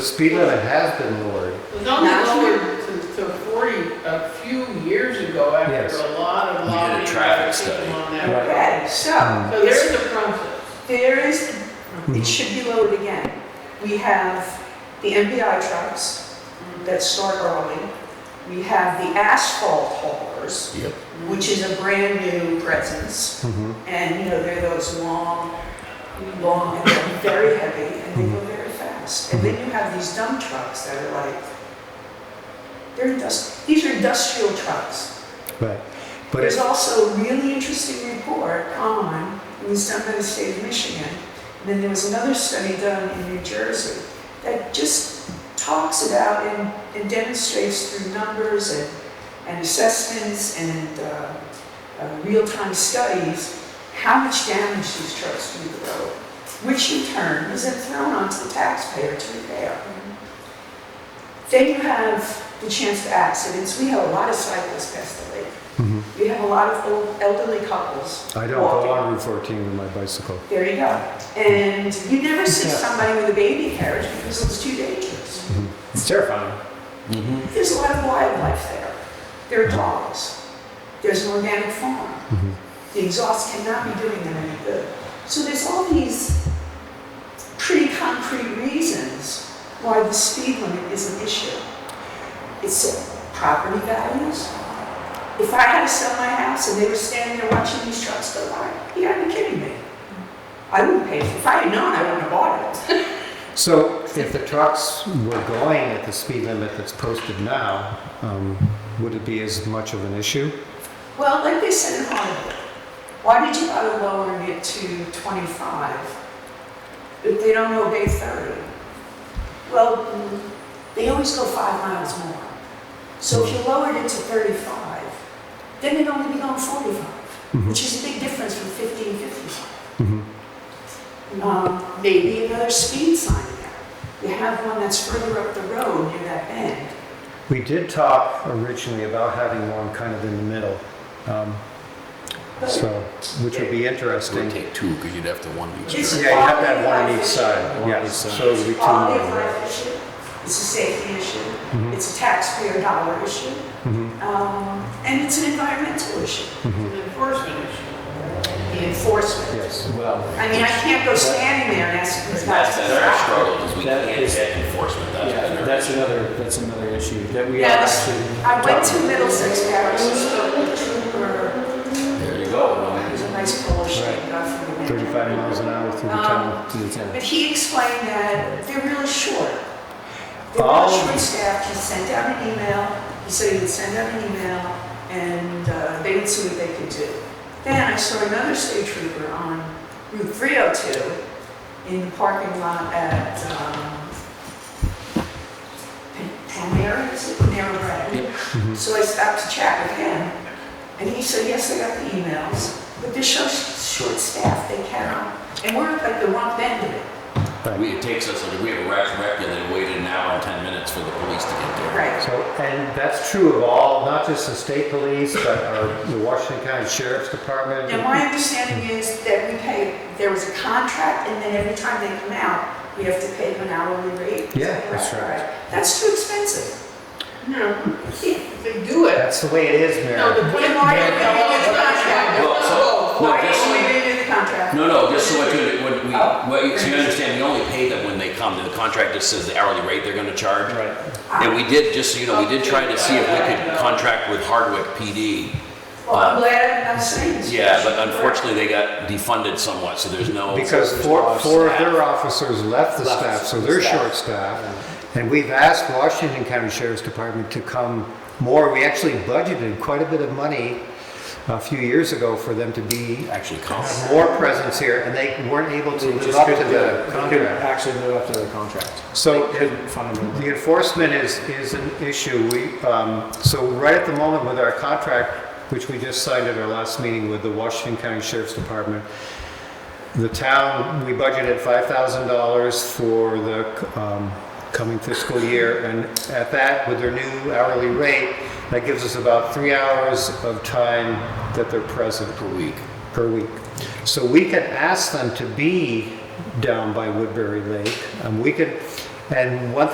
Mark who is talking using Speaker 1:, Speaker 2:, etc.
Speaker 1: speed limit has been lowered.
Speaker 2: It was only
Speaker 3: That's
Speaker 2: lowered to, to forty a few years ago after
Speaker 1: Yes.
Speaker 2: a lot of
Speaker 4: We did a
Speaker 2: lobbying. by
Speaker 4: traffic
Speaker 2: people
Speaker 4: study.
Speaker 2: on that.
Speaker 1: Right.
Speaker 3: Okay, so,
Speaker 2: So there is a process.
Speaker 3: there is,
Speaker 1: Mm-hmm. Hmm.
Speaker 3: it should be lowered again. We have the MPI trucks that start early. We have the asphalt haulers,
Speaker 4: Yep.
Speaker 3: which is a brand new presence.
Speaker 1: Mhm.
Speaker 3: And, you know, they're those long, long, and they're very heavy, and they go very fast. And then you have these dump trucks that are like, they're indust, these are industrial trucks.
Speaker 1: Right. But
Speaker 3: There's
Speaker 1: it's,
Speaker 3: also a really interesting report on, it was done by the state of Michigan, and then there was another study done in New Jersey that just talks about and, and demonstrates through numbers and, and assessments and uh, uh, real-time studies how much damage these trucks do to the road, which in turn is then thrown onto the taxpayer to repair. Then you have the chance for accidents. We have a lot of cyclists past the lake.
Speaker 1: Mhm.
Speaker 3: We have a lot of old elderly couples.
Speaker 1: I don't go
Speaker 3: walking.
Speaker 1: on Route 14 with my bicycle.
Speaker 3: There you go. And you never see
Speaker 1: Yeah.
Speaker 3: somebody with a baby carriage because it was too dangerous.
Speaker 1: It's terrifying.
Speaker 4: Mm-hmm.
Speaker 3: There's a lot of wildlife there. There are dogs. There's an organic farm. The exhaust cannot be doing them any good. So there's all these pretty concrete reasons why the speed limit is an issue. It's property values. If I had to sell my house and they were standing there watching these trucks go by, you gotta be kidding me. I wouldn't pay, for- if I had known, I wouldn't have bought it.
Speaker 1: So if the trucks were going at the speed limit that's posted now, um, would it be as much of an issue?
Speaker 3: Well, like they said in Hollywood, why did you bother lowering it to 25 if they don't obey 30? Well, mm, they always go five miles more. So if you lowered it to 35, then it'd only be going 45, which is a big difference from 50 and 55.
Speaker 1: Mhm.
Speaker 3: Um, Maybe another speed sign there. You have one that's further up the road near that bend.
Speaker 1: We did talk originally about having one kind of in the middle, um,
Speaker 3: But
Speaker 1: so, which would be
Speaker 4: It would
Speaker 1: interesting.
Speaker 4: take two, because you'd have to one each
Speaker 3: It's-
Speaker 4: direction.
Speaker 1: Yeah, you have to have one on each side,
Speaker 4: One on each
Speaker 1: yes,
Speaker 4: side.
Speaker 1: so it would be two
Speaker 3: quality of
Speaker 1: more,
Speaker 3: life
Speaker 1: right?
Speaker 3: issue, it's a safety issue,
Speaker 1: Mhm.
Speaker 3: it's a taxpayer dollar issue,
Speaker 1: Mhm,
Speaker 3: um, and it's an environmental issue,
Speaker 1: mhm.
Speaker 2: It's an enforcement issue.
Speaker 3: the enforcement.
Speaker 1: Yes.
Speaker 5: Well,
Speaker 3: I mean, I can't go standing there and ask them
Speaker 4: That's been our struggle, is we
Speaker 5: That
Speaker 4: can't
Speaker 5: is-
Speaker 4: get enforcement, that's been
Speaker 5: yeah,
Speaker 4: our.
Speaker 5: that's another, that's another issue that we are
Speaker 3: Yeah, this-
Speaker 5: actually.
Speaker 3: I went to
Speaker 5: talking-
Speaker 3: Middlesex Parish, and spoke with a trooper,
Speaker 4: There you go.
Speaker 3: it was a nice Polish
Speaker 1: Right.
Speaker 3: guy, God forgive him.
Speaker 1: 35 miles an hour through the
Speaker 3: Um,
Speaker 1: town.
Speaker 5: To the town.
Speaker 3: But he explained that they're really short. They're
Speaker 1: Oh.
Speaker 3: really short staffed, he sent out an email, he said he would send out an email, and uh, they would see what they could do. Then I saw another state trooper on Route 302 in the parking lot at um, Pan- Panera, is it Panera Bread? So I stopped to chat with him, and he said, yes, I got the emails, but they're so short staffed, they cannot. And we're at like the wrong end of it.
Speaker 4: We, it takes us, we have a rack rec and then waited an hour and 10 minutes for the police to get there.
Speaker 3: Right.
Speaker 1: So, and that's true of all, not just the state police, but our, the Washington County Sheriff's Department.
Speaker 3: Now, my understanding is that we pay, there was a contract, and then every time they come out, we have to pay them an hourly rate. Is that
Speaker 1: Yeah, that's
Speaker 3: correct?
Speaker 1: right.
Speaker 3: That's too expensive.
Speaker 2: No, if they do it,
Speaker 1: That's the way it is,
Speaker 2: no, the
Speaker 1: Mayor.
Speaker 2: point
Speaker 3: Why
Speaker 2: is,
Speaker 3: are you in the contract?
Speaker 4: Well, so- no,
Speaker 3: Why
Speaker 4: this-
Speaker 3: are we in the contract?
Speaker 4: No, no, just so what you, what we,
Speaker 3: Oh.
Speaker 4: what you, so you understand, we only pay them when they come, the contract just says the hourly rate they're gonna charge.
Speaker 5: Right.
Speaker 4: And we did, just so you know, we did try to see if we could contract with Hardwick PD.
Speaker 3: Well, I'm glad I'm not saying this.
Speaker 4: uh, Yeah, but unfortunately, they got defunded somewhat, so there's no.
Speaker 1: Because four, four of their officers left the staff, so they're
Speaker 5: Staff.
Speaker 1: short staffed. And we've asked Washington County Sheriff's Department to come more. We actually budgeted quite a bit of money a few years ago for them to be,
Speaker 4: Actually, come.
Speaker 1: have more presence here, and they weren't able to live
Speaker 5: Just
Speaker 1: up to
Speaker 5: couldn't do it.
Speaker 1: the
Speaker 5: Couldn't
Speaker 1: contract.
Speaker 5: Actually live up to the contract.
Speaker 1: So
Speaker 5: Couldn't fund them.
Speaker 1: The enforcement is, is an issue. We, um, so right at the moment with our contract, which we just signed at our last meeting with the Washington County Sheriff's Department, the town, we budgeted five thousand dollars for the, um, coming fiscal year. And at that, with their new hourly rate, that gives us about three hours of time that they're present. Per week. Per week. So we can ask them to be down by Woodbury Lake. And we could, and one